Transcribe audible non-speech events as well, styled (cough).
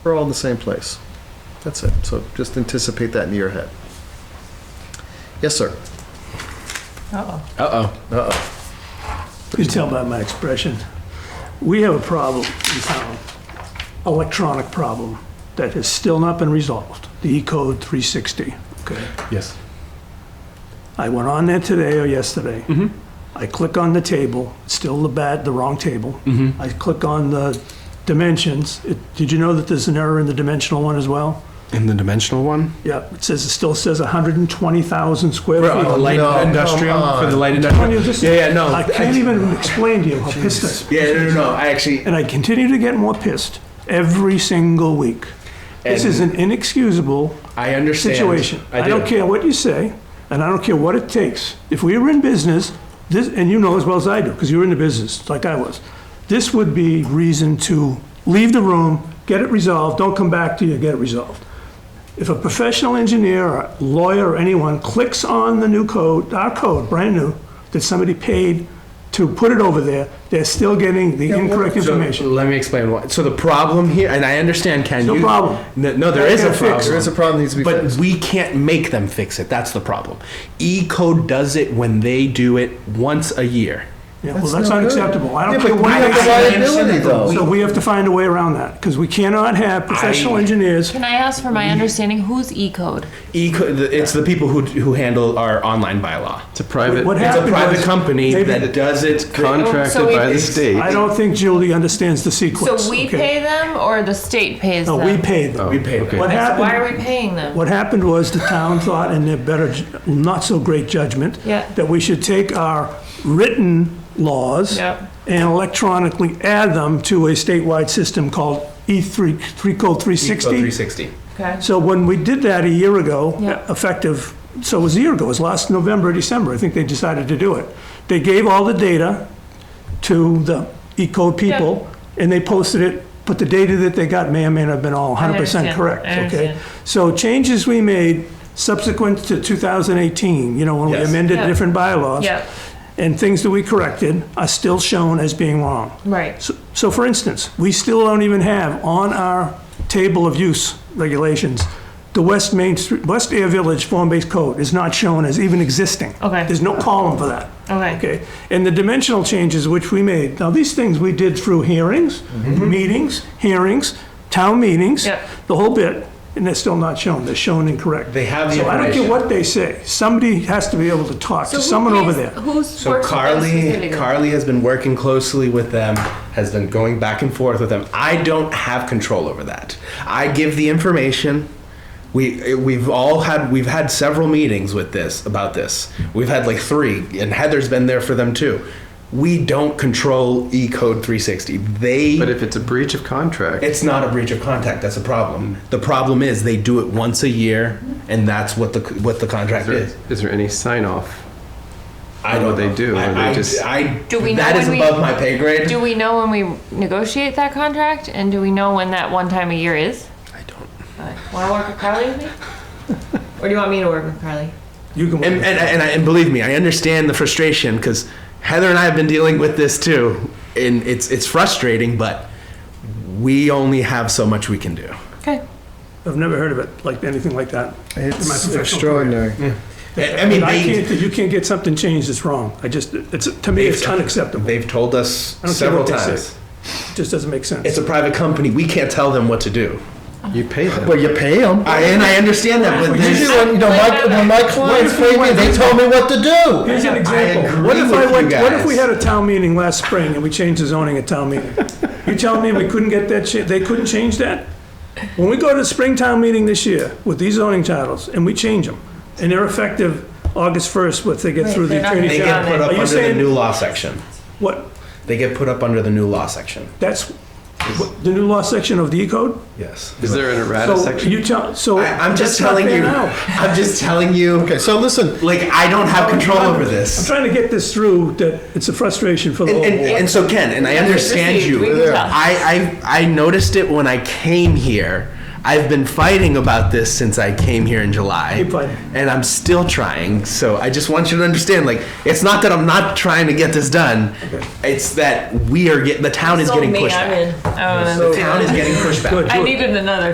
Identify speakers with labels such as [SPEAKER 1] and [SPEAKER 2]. [SPEAKER 1] We're all in the same place. That's it. So just anticipate that in your head. Yes, sir.
[SPEAKER 2] Uh-oh.
[SPEAKER 3] Uh-oh.
[SPEAKER 1] Uh-oh.
[SPEAKER 4] You can tell by my expression. We have a problem in town, electronic problem, that has still not been resolved, the E-code 360, okay?
[SPEAKER 3] Yes.
[SPEAKER 4] I went on there today or yesterday.
[SPEAKER 3] Mm-hmm.
[SPEAKER 4] I click on the table, it's still the bad, the wrong table.
[SPEAKER 3] Mm-hmm.
[SPEAKER 4] I click on the dimensions. It- Did you know that there's an error in the dimensional one as well?
[SPEAKER 3] In the dimensional one?
[SPEAKER 4] Yeah, it says, it still says 120,000 square feet.
[SPEAKER 3] the light
[SPEAKER 1] Oh, no, come
[SPEAKER 3] industrial,
[SPEAKER 1] on.
[SPEAKER 3] for the light
[SPEAKER 4] Tony,
[SPEAKER 3] industrial?
[SPEAKER 4] this-
[SPEAKER 3] Yeah, yeah, no. Oh,
[SPEAKER 4] I can't even explain to you how pissed I am.
[SPEAKER 3] Yeah, no, no, no, I actually,
[SPEAKER 4] And I continue to get more pissed every single week. This
[SPEAKER 3] And-
[SPEAKER 4] is an inexcusable
[SPEAKER 3] I understand.
[SPEAKER 4] situation. I don't
[SPEAKER 3] do.
[SPEAKER 4] care what you say, and I don't care what it takes. If we were in business, this, and you know as well as I do, because you were in the business, like I was, this would be reason to leave the room, get it resolved, don't come back to you, get it resolved. If a professional engineer, or lawyer, or anyone clicks on the new code, our code, brand new, that somebody paid to put it over there, they're still getting the incorrect
[SPEAKER 3] So,
[SPEAKER 4] information.
[SPEAKER 3] Let me explain what, so the problem here, and I understand, Ken.
[SPEAKER 4] No
[SPEAKER 3] you-
[SPEAKER 4] problem.
[SPEAKER 3] No, no, there is a
[SPEAKER 4] Gotta fix it.
[SPEAKER 3] problem.
[SPEAKER 1] There is a problem that needs to be
[SPEAKER 3] But
[SPEAKER 1] fixed.
[SPEAKER 3] we can't make them fix it, that's the problem. E-code does it when they do it once a year.
[SPEAKER 4] Yeah, well, that's unacceptable. I
[SPEAKER 1] Yeah,
[SPEAKER 4] don't
[SPEAKER 1] but
[SPEAKER 4] care
[SPEAKER 1] we
[SPEAKER 4] what
[SPEAKER 1] have
[SPEAKER 4] it
[SPEAKER 1] the
[SPEAKER 4] is.
[SPEAKER 1] liability, though.
[SPEAKER 4] So we have to find a way around that, because we cannot have professional
[SPEAKER 3] I-
[SPEAKER 4] engineers.
[SPEAKER 2] Can I ask for my understanding? Who's E code?
[SPEAKER 3] E-code, it's the people who, who handle our online bylaw.
[SPEAKER 5] It's a private
[SPEAKER 4] What
[SPEAKER 3] It's a
[SPEAKER 4] happened
[SPEAKER 3] private
[SPEAKER 4] was-
[SPEAKER 3] company
[SPEAKER 4] Maybe
[SPEAKER 3] that does it.
[SPEAKER 5] contracted
[SPEAKER 2] So it-
[SPEAKER 5] by the state.
[SPEAKER 4] I don't think Julie understands the sequence.
[SPEAKER 2] So we
[SPEAKER 4] okay?
[SPEAKER 2] pay them or the state pays
[SPEAKER 4] No,
[SPEAKER 2] them?
[SPEAKER 4] we paid them.
[SPEAKER 3] Oh, We pay them.
[SPEAKER 5] okay.
[SPEAKER 4] What
[SPEAKER 2] So why are
[SPEAKER 4] happened,
[SPEAKER 2] we paying them?
[SPEAKER 4] what happened was the town thought in their better, ju- not so great judgment,
[SPEAKER 2] Yeah.
[SPEAKER 4] that we should take our written laws
[SPEAKER 2] Yep.
[SPEAKER 4] and electronically add them to a statewide system called E3, 3 code 360.
[SPEAKER 3] E Three sixty.
[SPEAKER 2] Okay.
[SPEAKER 4] So when we did that a year ago,
[SPEAKER 2] Yeah.
[SPEAKER 4] effective, so it was a year ago, it was last November, December, I think they decided to do it. They gave all the data to the E-code people, and they posted it, but the data that they got may or may not have been all 100%
[SPEAKER 2] understand.
[SPEAKER 4] correct,
[SPEAKER 2] I
[SPEAKER 4] okay?
[SPEAKER 2] understand.
[SPEAKER 4] So changes we made subsequent to 2018, you know, when we
[SPEAKER 3] Yes.
[SPEAKER 4] amended
[SPEAKER 2] Yeah.
[SPEAKER 4] different bylaws,
[SPEAKER 2] Yeah.
[SPEAKER 4] and things that we corrected are still shown as being wrong.
[SPEAKER 2] Right.
[SPEAKER 4] So- So for instance, we still don't even have on our table of use regulations, the West Main Street, West Air Village Form-Based Code is not shown as even existing.
[SPEAKER 2] Okay.
[SPEAKER 4] There's no column for that.
[SPEAKER 2] Okay.
[SPEAKER 4] Okay, and the dimensional changes which we made, now these things we did through hearings,
[SPEAKER 3] Mm-hmm.
[SPEAKER 4] meetings, hearings, town meetings,
[SPEAKER 2] Yep.
[SPEAKER 4] the whole bit, and they're still not shown, they're shown incorrect.
[SPEAKER 3] They have the
[SPEAKER 4] So I don't care
[SPEAKER 3] information.
[SPEAKER 4] what they say, somebody has to be able to talk to
[SPEAKER 2] So who
[SPEAKER 4] someone over
[SPEAKER 2] pays-
[SPEAKER 4] there.
[SPEAKER 2] Who's
[SPEAKER 3] So
[SPEAKER 2] works with us
[SPEAKER 3] Carly,
[SPEAKER 2] specifically?
[SPEAKER 3] Carly has been working closely with them, has been going back and forth with them. I don't have control over that. I give the information. We we've all had we've had several meetings with this about this. We've had like three, and Heather's been there for them too. We don't control E Code 360. They
[SPEAKER 5] But if it's a breach of contract,
[SPEAKER 3] It's not a breach of contract. That's a problem. The problem is they do it once a year, and that's what the what the contract
[SPEAKER 5] is
[SPEAKER 3] is.
[SPEAKER 5] there, is there any sign off?
[SPEAKER 3] I
[SPEAKER 5] What
[SPEAKER 3] don't
[SPEAKER 5] they
[SPEAKER 3] know.
[SPEAKER 5] do,
[SPEAKER 3] I,
[SPEAKER 5] or they
[SPEAKER 3] I-
[SPEAKER 5] just-
[SPEAKER 3] I,
[SPEAKER 2] Do we know
[SPEAKER 3] that
[SPEAKER 2] when
[SPEAKER 3] is
[SPEAKER 2] we-
[SPEAKER 3] above my pay grade.
[SPEAKER 2] Do we know when we negotiate that contract and do we know when that one time a year is?
[SPEAKER 3] I don't.
[SPEAKER 2] Want to work with Carly with me?
[SPEAKER 3] (laughs)
[SPEAKER 2] Or do you want me to work with Carly?
[SPEAKER 4] You can.
[SPEAKER 3] And and, and, I, and believe me, I understand the frustration because Heather and I have been dealing with this too, and it's it's frustrating, but we only have so much we can do.
[SPEAKER 2] Okay.
[SPEAKER 4] I've never heard of it, like, anything like that. my
[SPEAKER 1] It's
[SPEAKER 4] professional
[SPEAKER 1] extraordinary.
[SPEAKER 3] I, I mean,
[SPEAKER 4] I
[SPEAKER 3] they,
[SPEAKER 4] can't, you can't get something changed that's wrong. I just, it's, to me, it's unacceptable. It
[SPEAKER 3] they've told
[SPEAKER 4] I
[SPEAKER 3] us
[SPEAKER 4] don't care
[SPEAKER 3] several
[SPEAKER 4] what they say.
[SPEAKER 3] times.
[SPEAKER 4] just doesn't make sense.
[SPEAKER 3] It's a private company. We can't tell them what to do.
[SPEAKER 5] You pay them.
[SPEAKER 1] Well, you pay them.
[SPEAKER 3] I, and I understand that, but there's-
[SPEAKER 1] Usually, when, you know, my, when my clients pay me, they tell me what to do.
[SPEAKER 4] Here's an
[SPEAKER 3] agree
[SPEAKER 4] example. What if
[SPEAKER 3] with
[SPEAKER 4] I
[SPEAKER 3] you
[SPEAKER 4] went, what if
[SPEAKER 3] guys.
[SPEAKER 4] we had a town meeting last spring and we changed the zoning at town meeting? You telling me we couldn't get that, cha- they couldn't change that? When we go to the spring town meeting this year with these zoning titles and we change them, and they're effective August 1st, what they get
[SPEAKER 2] Right,
[SPEAKER 4] through the
[SPEAKER 2] they're not
[SPEAKER 4] attorney
[SPEAKER 3] They
[SPEAKER 2] gonna
[SPEAKER 3] get
[SPEAKER 4] general.
[SPEAKER 3] put
[SPEAKER 2] Yeah.
[SPEAKER 3] up
[SPEAKER 4] Are you
[SPEAKER 3] under the new
[SPEAKER 4] saying,
[SPEAKER 3] law section.
[SPEAKER 4] what,
[SPEAKER 3] They get put up under the new law section.
[SPEAKER 4] that's, what- the new law section of the E code?
[SPEAKER 3] Yes.
[SPEAKER 5] is there an errata
[SPEAKER 4] So
[SPEAKER 5] section?
[SPEAKER 4] you tell, so.
[SPEAKER 3] I, I'm
[SPEAKER 4] that's
[SPEAKER 3] just
[SPEAKER 4] not
[SPEAKER 3] telling
[SPEAKER 4] fair
[SPEAKER 3] you.
[SPEAKER 4] now. Oh,
[SPEAKER 3] I'm just telling you.
[SPEAKER 1] Okay, so listen,
[SPEAKER 3] Like I don't have control over
[SPEAKER 4] I'm
[SPEAKER 3] this.
[SPEAKER 4] trying to get this through that it's a frustration for the
[SPEAKER 3] And,
[SPEAKER 4] whole
[SPEAKER 3] and,
[SPEAKER 4] board.
[SPEAKER 3] and so Ken, and I
[SPEAKER 2] Received,
[SPEAKER 3] understand
[SPEAKER 2] we
[SPEAKER 3] you.
[SPEAKER 2] can tell.
[SPEAKER 3] I, I I noticed it when I came here. I've been fighting about this since I came here in July.
[SPEAKER 4] Keep fighting.
[SPEAKER 3] And I'm still trying. So I just want you to understand like it's not that I'm not trying to get this done. It's that we are get the town is
[SPEAKER 6] Sold
[SPEAKER 3] getting
[SPEAKER 6] me,
[SPEAKER 3] pushed
[SPEAKER 6] I'm
[SPEAKER 3] back.
[SPEAKER 6] in.
[SPEAKER 2] Oh,
[SPEAKER 3] The town is getting pushed back.
[SPEAKER 4] Good.
[SPEAKER 2] I needed another